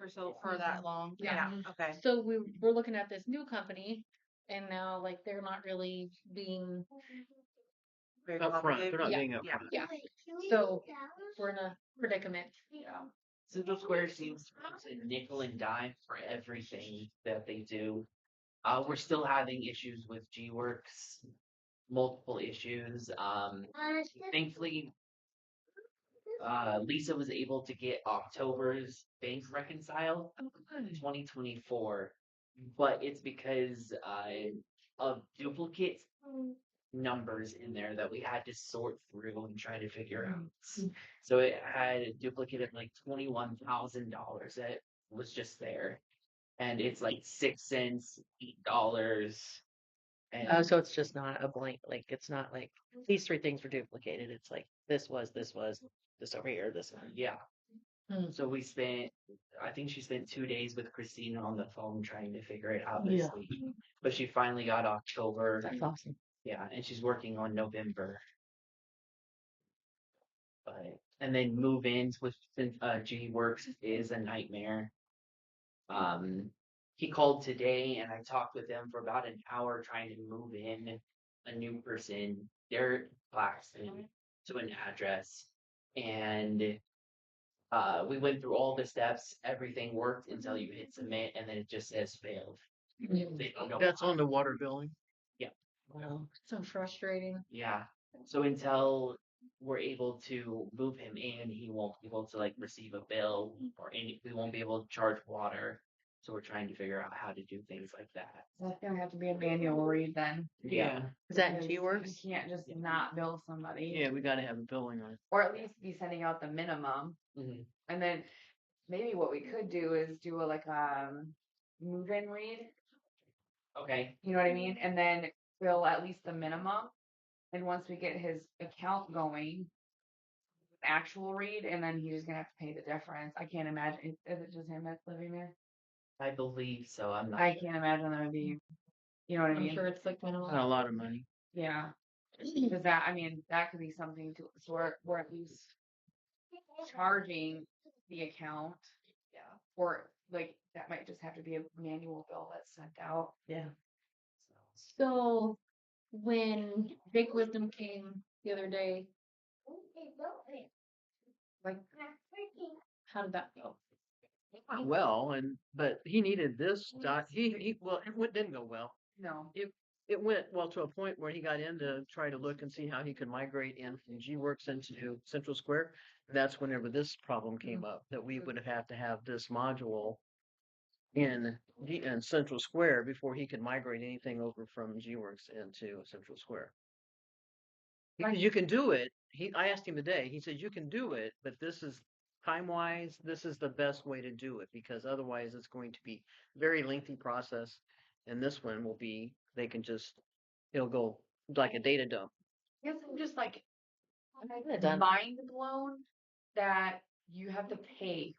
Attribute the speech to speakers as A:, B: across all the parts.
A: or so for that long.
B: Yeah.
C: Mm-hmm.
A: Okay.
D: So we we're looking at this new company, and now like they're not really being.
A: Very
C: upfront,
A: cooperative.
C: they're not
D: Yeah.
C: being upfront.
A: Yeah.
D: Yeah. So we're in a predicament.
E: Central Square seems to nickel and dime for everything that they do. Uh, we're still having issues with G Works, multiple issues. Um, thankfully, uh, Lisa was able to get October's bank reconciled in 2024, but it's because uh, of duplicate numbers in there that we had to sort through and try to figure out. So it had a duplicate of like twenty-one thousand dollars that was just there, and it's like six cents, eight dollars, and
C: Oh, so it's just not a blank, like, it's not like, these three things were duplicated, it's like, this was, this was, this over here, this one.
E: yeah.
D: Hmm.
E: So we spent, I think she spent two days with Christina on the phone trying to figure it out this
C: Yeah.
E: week, but she finally got October.
C: That's awesome.
E: Yeah, and she's working on November. But and then move ins with since uh G works is a nightmare. Um he called today and I talked with him for about an hour trying to move in a new person, their Claxton, to an address. And uh we went through all the steps, everything worked until you hit submit and then it just says failed.
B: Mm-hmm.
E: They don't know
C: That's
E: why.
C: on the water billing?
E: Yeah.
C: Wow.
D: So frustrating.
E: Yeah. So until we're able to move him in, he won't be able to like receive a bill or any. We won't be able to charge water. So we're trying to figure out how to do things like that.
B: That's gonna have to be a manual read then.
E: Yeah.
C: Is that in
B: because
C: G
B: You
C: Works?
B: can't just not bill somebody.
C: Yeah, we gotta have a billing on it.
B: Or at least be sending out the minimum.
E: Mhm.
B: And then maybe what we could do is do a like um move in read.
E: Okay.
B: You know what I mean?
C: Mm-hmm.
B: And then bill at least the minimum. And once we get his account going, actual read, and then he's just gonna have to pay the difference. I can't imagine. Is it just him that's living there?
E: I believe so. I'm not.
B: I can't imagine that would be. You know what I
D: I'm
B: mean?
D: sure it's like minimal.
C: Not a lot of money.
B: Yeah. Because that, I mean, that could be something to, so we're, we're at least charging the account. Yeah. Or like, that might just have to be a manual bill that's sent out.
C: Yeah.
D: So when Big Wisdom came the other day,
B: Like,
D: how did that go?
C: Well, and, but he needed this dot, he, he, well, it went- didn't go well.
B: no,
C: It went, well, to a point where he got in to try to look and see how he could migrate in from G Works into Central Square. That's whenever this problem came up, that we would have had to have this module in, G- in Central Square before he could migrate anything over from G Works into Central Square. He said, You can do it. He, I asked him today, he said, you can do it, but this is time wise, this is the best way to do it because otherwise it's going to be very lengthy process. And this one will be, they can just, it'll go like a data dump.
B: I guess I'm just like
C: have done-
B: mind blown that you have to pay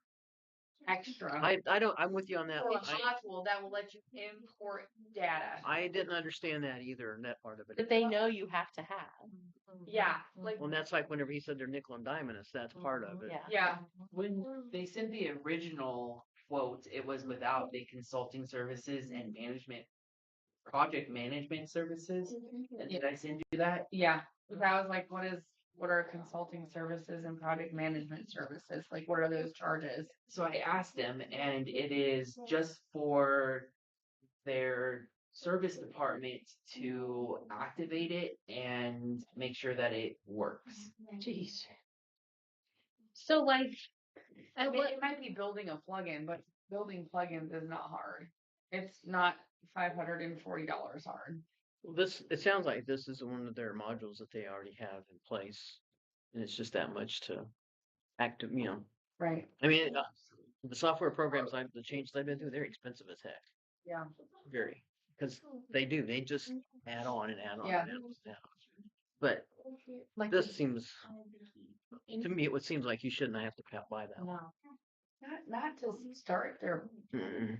B: extra.
C: I, I don't, I'm with you on that.
B: For a
C: one. I,
B: module that will let you import data.
C: I didn't understand that either, and that part of
F: that
C: it.
F: they know you have to have.
B: Yeah, like,
C: Well, and that's like whenever he said they're nickel and diamond us, that's part of it.
F: Mm-hmm, Yeah.
B: yeah,
E: When they sent the original quote, it was without the consulting services and management, project management services. And Did I send you that?
B: yeah. Cause I was like, what is, what are consulting services and project management services? Like, what are those charges?
E: So I asked them, and it is just for their service department to activate it and make sure that it works.
F: Jeez. So like,
B: I
F: at
B: mean,
F: what,
B: it might be building a plugin, but building plugins is not hard. It's not five hundred and forty dollars hard.
C: Well, This, it sounds like this is one of their modules that they already have in place. And it's just that much to active, you know,
B: Right.
C: I mean, uh, the software programs I've, the changes I've been through, they're expensive as heck.
B: Yeah.
C: Very, because they do, they just
F: Mm-hmm.
C: add on and add on
B: Yeah.
C: and add on. and add on. But
D: Like
C: this seems,
D: in-
C: to me, it would seems like you shouldn't have to pa- buy that one.
D: No.
B: Not not to start there.
C: Mm-mm.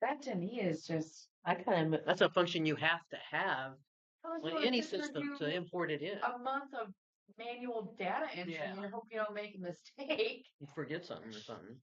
B: That to me is just
F: I kind of,
C: That's a function you have to have on any system to import it in.
B: a month of manual data entry
C: Yeah.
B: and hope you don't make a mistake.
C: You Forget something or something.